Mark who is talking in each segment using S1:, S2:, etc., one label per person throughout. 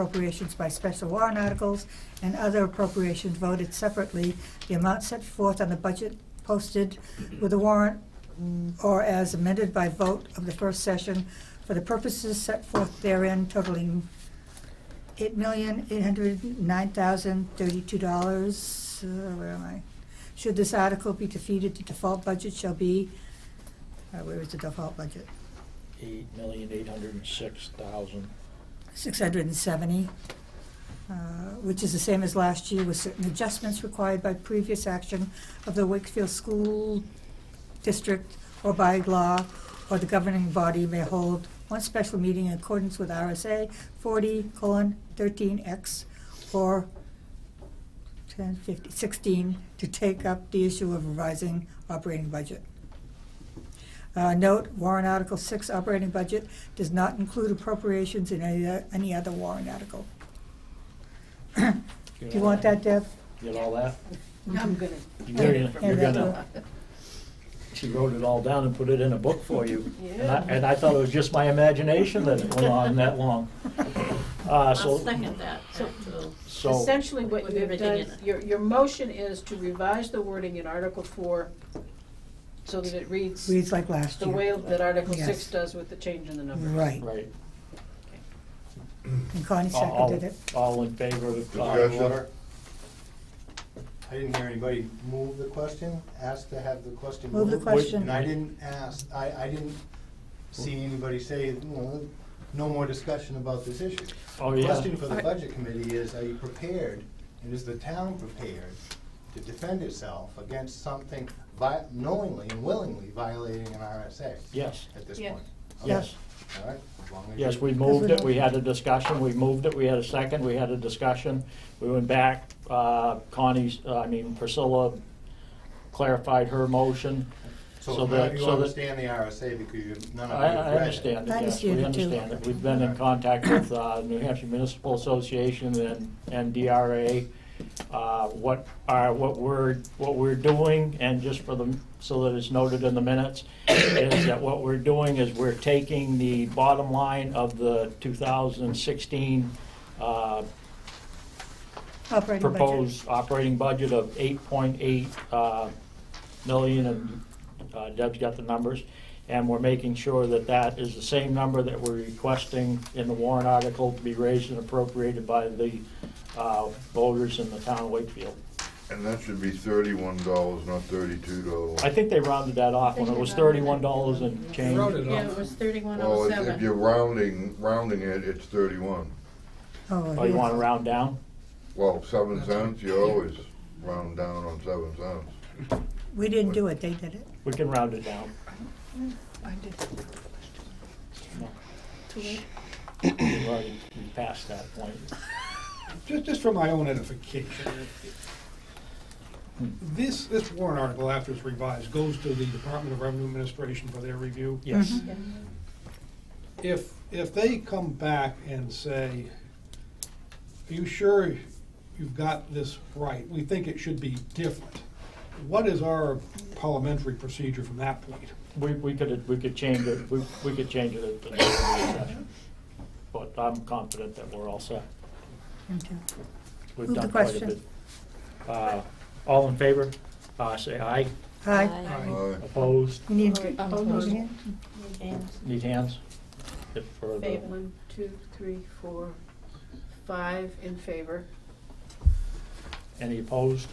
S1: appropriations by special warrant articles and other appropriations voted separately, the amount set forth on the budget posted with the warrant or as amended by vote of the first session for the purposes set forth therein totaling eight million, eight hundred nine thousand, thirty-two dollars, uh, where am I? Should this article be defeated, the default budget shall be, uh, where is the default budget?
S2: Eight million, eight hundred and six thousand.
S1: Six hundred and seventy, uh, which is the same as last year with certain adjustments required by previous action of the Wakefield School District or by law, or the governing body may hold one special meeting in accordance with RSA forty colon thirteen X or 10, 15, 16 to take up the issue of revising operating budget. Uh, Note, warrant Article 6 operating budget does not include appropriations in any, o- any other warrant article. Do you want that, Deb?
S2: Get all that?
S3: I'm gonna.
S2: You gotta- You're
S1: Yeah, that's
S2: gonna, she wrote it all down and put it in a book for you. And I,
S3: Yeah.
S2: and I thought it was just my imagination that it went on that long. Uh,
S4: I'll
S2: so,
S4: second that, so,
S2: so,
S3: Essentially, what
S4: With
S3: you've
S4: everything
S3: done,
S4: in it.
S3: your, your motion is to revise the wording in Article four so that it reads
S1: Reads like last
S3: the way
S1: year.
S3: that Article six
S1: Yes.
S3: does with the change in the number.
S1: Right,
S2: right.
S1: and Connie
S2: All-
S1: seconded it.
S2: All in favor of. uh,
S5: Discussion? I didn't hear anybody move the question, ask to have the question
S1: Move
S5: moved.
S1: the question.
S5: And I didn't ask, I, I didn't see anybody say, no, no more discussion about this issue.
S2: Oh,
S5: The
S2: yeah.
S5: Question for the budget committee is, are you prepared, and is the town prepared to defend itself against something vi- knowingly and willingly violating an RSA?
S2: Yes.
S5: At this
S4: Yeah.
S5: point?
S2: Yes,
S5: Okay, All right, as long as.
S2: yes,
S5: you-
S2: we moved it, we had a discussion, we moved it, we had a second, we had a discussion. We went back, uh, Connie's, I mean Priscilla clarified her motion.
S5: So
S2: that-
S5: none of you
S2: so that-
S5: understand the RSA because you, none of
S2: I,
S5: you have
S2: I
S5: read it.
S2: understand it,
S1: I
S2: yes, we
S1: understand it, too.
S2: understand it. We've been in contact with uh, New Hampshire Municipal Association and, and DRA, uh, what are, what we're, what we're doing, and just for the, so that it's noted in the minutes, is that what we're doing is we're taking the bottom line of the 2016 uh,
S1: Operating budget.
S2: proposed operating budget of 8.8 uh, million, and uh, Deb's got the numbers, and we're making sure that that is the same number that we're requesting in the warrant article to be raised and appropriated by the uh, voters in the town of Wakefield.
S6: And that should be thirty-one dollars, not thirty-two dollars.
S2: I think they rounded that off when it was $31 and change.
S4: yeah, it was thirty-one
S6: Well,
S4: oh
S6: if- if
S4: seven.
S6: you're rounding, rounding it, it's thirty-one.
S2: Oh, you want to round down?
S6: Well, seven cents, you always round down on seven cents.
S1: We didn't do it, they did it.
S2: We can round it down. We've already passed that point.
S7: Just, just for my own edification, this, this warrant article, after it's revised, goes to the Department of Revenue Administration for their review.
S1: Mm-hmm.
S2: Yes.
S7: If, if they come back and say, are you sure you've got this right? We think it should be different. What is our parliamentary procedure from that point?
S2: We, we could, we could change it, we, we could change it at the next session. But I'm confident that we're all set.
S1: Okay.
S2: We've
S1: Move the
S2: done quite a
S1: question.
S2: bit. Uh, All in favor, uh, say aye.
S1: Hi,
S6: Uh,
S2: Opposed,
S1: you need,
S3: Aye.
S1: oh, you need it?
S6: uh,
S2: need hands? If for the-
S3: Favor. One, two, three, four, five in favor.
S2: Any opposed?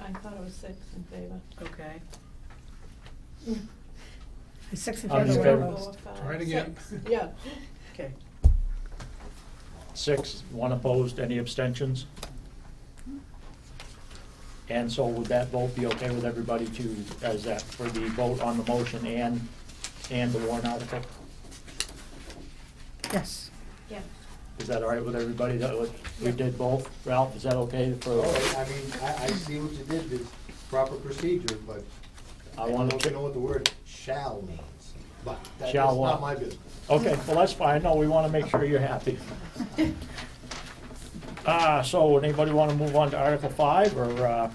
S4: I thought it was six in favor.
S3: Okay.
S1: Six in
S2: I'm in
S1: favor, one
S2: favor.
S1: opposed.
S7: Try it again.
S4: Six, Yeah.
S3: Okay.
S2: Six, one opposed, any abstentions? And so would that vote be okay with everybody to, as that, for the vote on the motion and, and the warrant article?
S1: Yes.
S4: Yeah.
S2: Is that all right with everybody that would- we did both? Ralph, is that okay for,
S5: Oh, I mean, I, I see what you did, it's proper procedure, but
S2: I
S5: I
S2: want
S5: don't
S2: to,
S5: know what the word shall means, but that's
S2: Shall what?
S5: not my business.
S2: okay, well, that's fine. No, we want to make sure you're happy. Uh, so anybody want to move on to Article Five or, uh,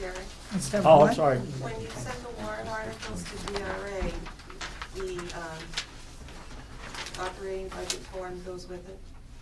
S8: Jerry,
S1: Instead of
S2: oh, I'm
S1: one?
S2: sorry.
S8: when you send the warrant articles to DRA, the um, operating budget form goes with it?